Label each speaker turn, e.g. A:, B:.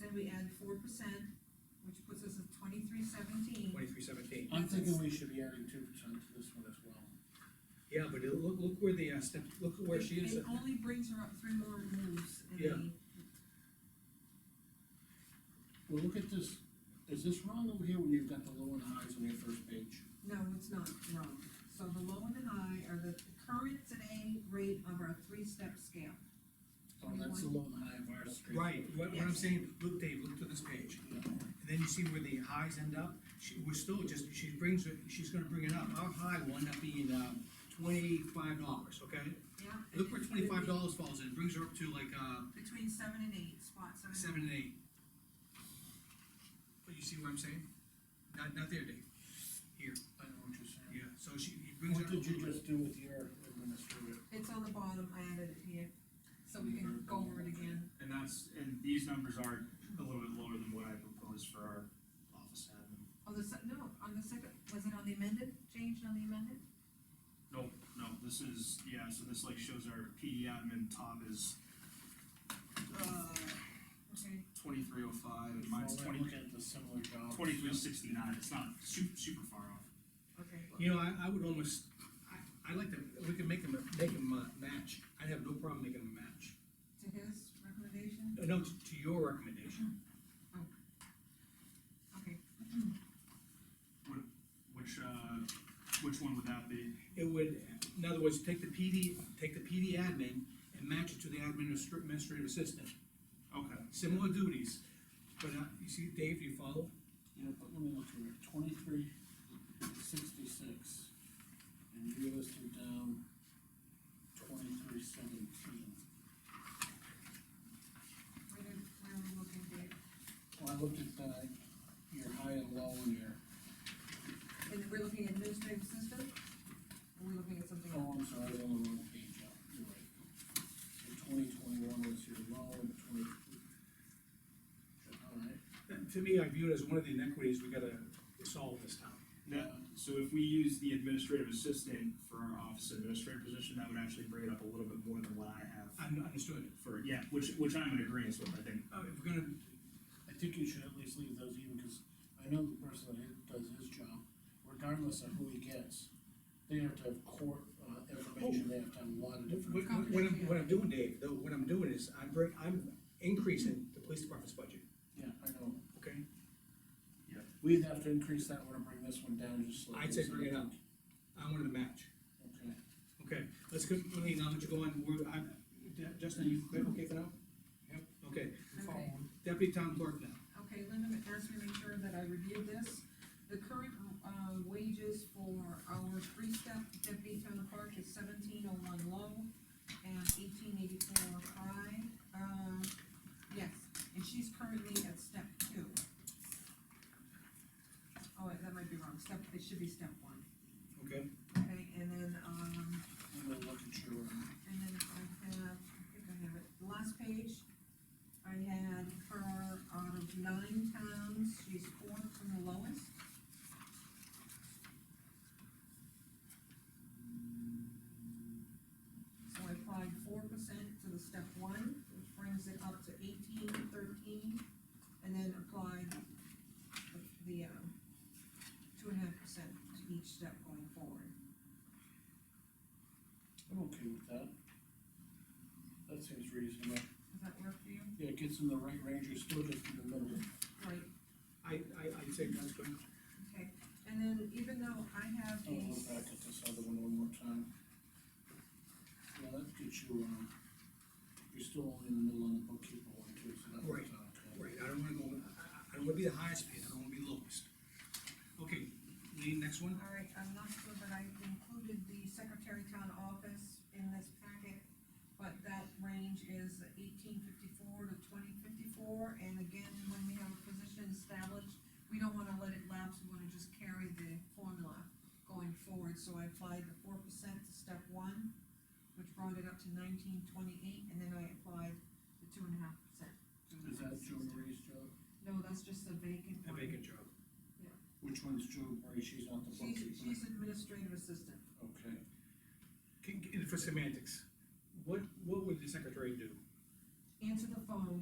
A: then we add four percent, which puts us at twenty-three seventeen.
B: twenty-three seventeen.
C: I'm thinking we should be adding two percent to this one as well.
B: Yeah, but it- look, look where the, uh, step, look where she is.
A: It only brings her up three more moves in
B: Yeah.
A: the,
C: Well, look at this, is this wrong over here when you've got the low and highs on your first page?
A: no, it's not wrong. So the low and the high are the current today rate of our three-step scale.
C: Oh, that's the low and high of our street.
B: Right, what, what I'm
A: Yes.
B: saying, look, Dave, look to this page,
C: Yeah.
B: and then you see where the highs end up, she, we're still just, she brings it, she's gonna bring it up, our high will end up being, um, twenty-five dollars, okay?
A: Yeah. and
B: Look where
A: it's
B: twenty-five
A: gonna
B: dollars falls in, brings her up to like, uh,
A: be Between seven and eight, spot seven. and
B: seven and eight. But you see what I'm saying? Not, not there, Dave, here,
C: I know what you're saying.
B: yeah, so she, it brings her up a
C: What did you
B: little bit.
C: just do with your administrator?
A: eight. It's on the bottom, I added it here, so we can go over it again.
D: And that's, and these numbers are a little bit lower than what I proposed for our office admin.
A: On the se- no, on the second, was it on the amended, changed on the amended?
D: No, no, this is, yeah, so this like shows our PD admin top is
A: Uh, okay.
D: twenty-three oh five, and mine's
C: Well,
D: twenty,
C: Look at the similar job.
D: twenty-three oh sixty-nine, it's not super, super far off.
A: Okay.
B: You know, I, I would almost, I, I'd like to, we could make them, make them uh, match, I'd have no problem making them match.
A: To his recommendation,
B: No, No, to to your recommendation,
A: okay.
D: Which, uh, which one would that be?
B: it would, in other words, take the PD, take the PD admin and match it to the administr- administrative assistant,
D: Okay,
B: similar duties. But, uh, you see, Dave, do you follow?
C: Yeah, but let me look here, twenty-three sixty-six, and you listed down twenty-three seventeen.
A: Where did, where are we looking, Dave?
C: Well, I looked at, uh, your high and low in your,
A: And we're looking at administrative system? Or we're looking at something else?
C: oh, I'm sorry, I was on the wrong page, yeah, you're right. So twenty twenty-one was your low and twenty. All right,
B: To me, I view it as one of the inequities we gotta solve this time.
D: that, so if we use the administrative assistant for our office administrator position, that would actually bring it up a little bit more than what I have.
B: Un- Understood.
D: For, yeah, which, which I'm in agreement with, I think.
B: Uh, if we're gonna,
C: I think you should at least leave those even, because I know the person that hi- does his job, regardless of who he gets, they have to have court, uh, information, they have to have a lot of
B: what,
C: different.
B: what- what I'm, what I'm doing, Dave, though, what I'm doing is, I'm bring, I'm increasing the police department's budget,
C: Yeah, I know,
B: okay?
C: we'd have to increase that one and bring this one down just slightly.
B: I'd say bring it up. I wanted to match.
C: Okay,
B: Okay, let's go, Lean, now that you go on, we're, I, De- Justin, you good okay for now? Yep. Okay,
A: Okay.
B: deputy town clerk now.
A: Okay, Linda asked me to make sure that I reviewed this. The current, uh, wages for our three-step deputy town clerk is seventeen oh one low and eighteen eighty-four high. Um, yes, and she's currently at step two. Oh, wait, that might be wrong, step, it should be step one,
B: Okay.
A: okay, and then, um,
C: I'm gonna look at your, um,
A: and then I have, I think I have it, the last page, I had her out of nine towns, she's fourth from the lowest. So I applied four percent to the step one, which brings it up to eighteen thirteen, and then applied the, the, um, two and a half percent to each step going forward.
C: I'm okay with that. That seems reasonable,
A: Does that work for you?
C: yeah, it gets in the right range, you're still just in the middle.
A: Right,
B: I, I, I'd say that's good.
A: Okay, and then even though I have
C: I'll
A: a,
C: look oh, back at this other one one more time. Yeah, that gets you, um, you're still only in the middle on the bookkeeper one too, so that works out okay.
B: Right, I don't wanna go, I- I, I don't wanna be the highest paid, I don't wanna be the lowest. Okay, Lean, next one?
A: all right, I'm not sure that I included the secretary town office in this packet, but that range is eighteen fifty-four to twenty fifty-four, and again, when we have a position established, we don't wanna let it lapse, we wanna just carry the formula going forward, so I applied the four percent to step one, which brought it up to nineteen twenty-eight, and then I applied the two and a half percent.
C: Is that Joe Marie's job?
A: No, that's just a vacant
B: A
A: one.
B: vacant job.
C: Which one's Joe Marie, she's not the
A: She's,
C: bookkeeper?
A: she's administrative assistant.
C: Okay,
B: Can- can- For semantics, what, what would the secretary do?
A: Answer the phone,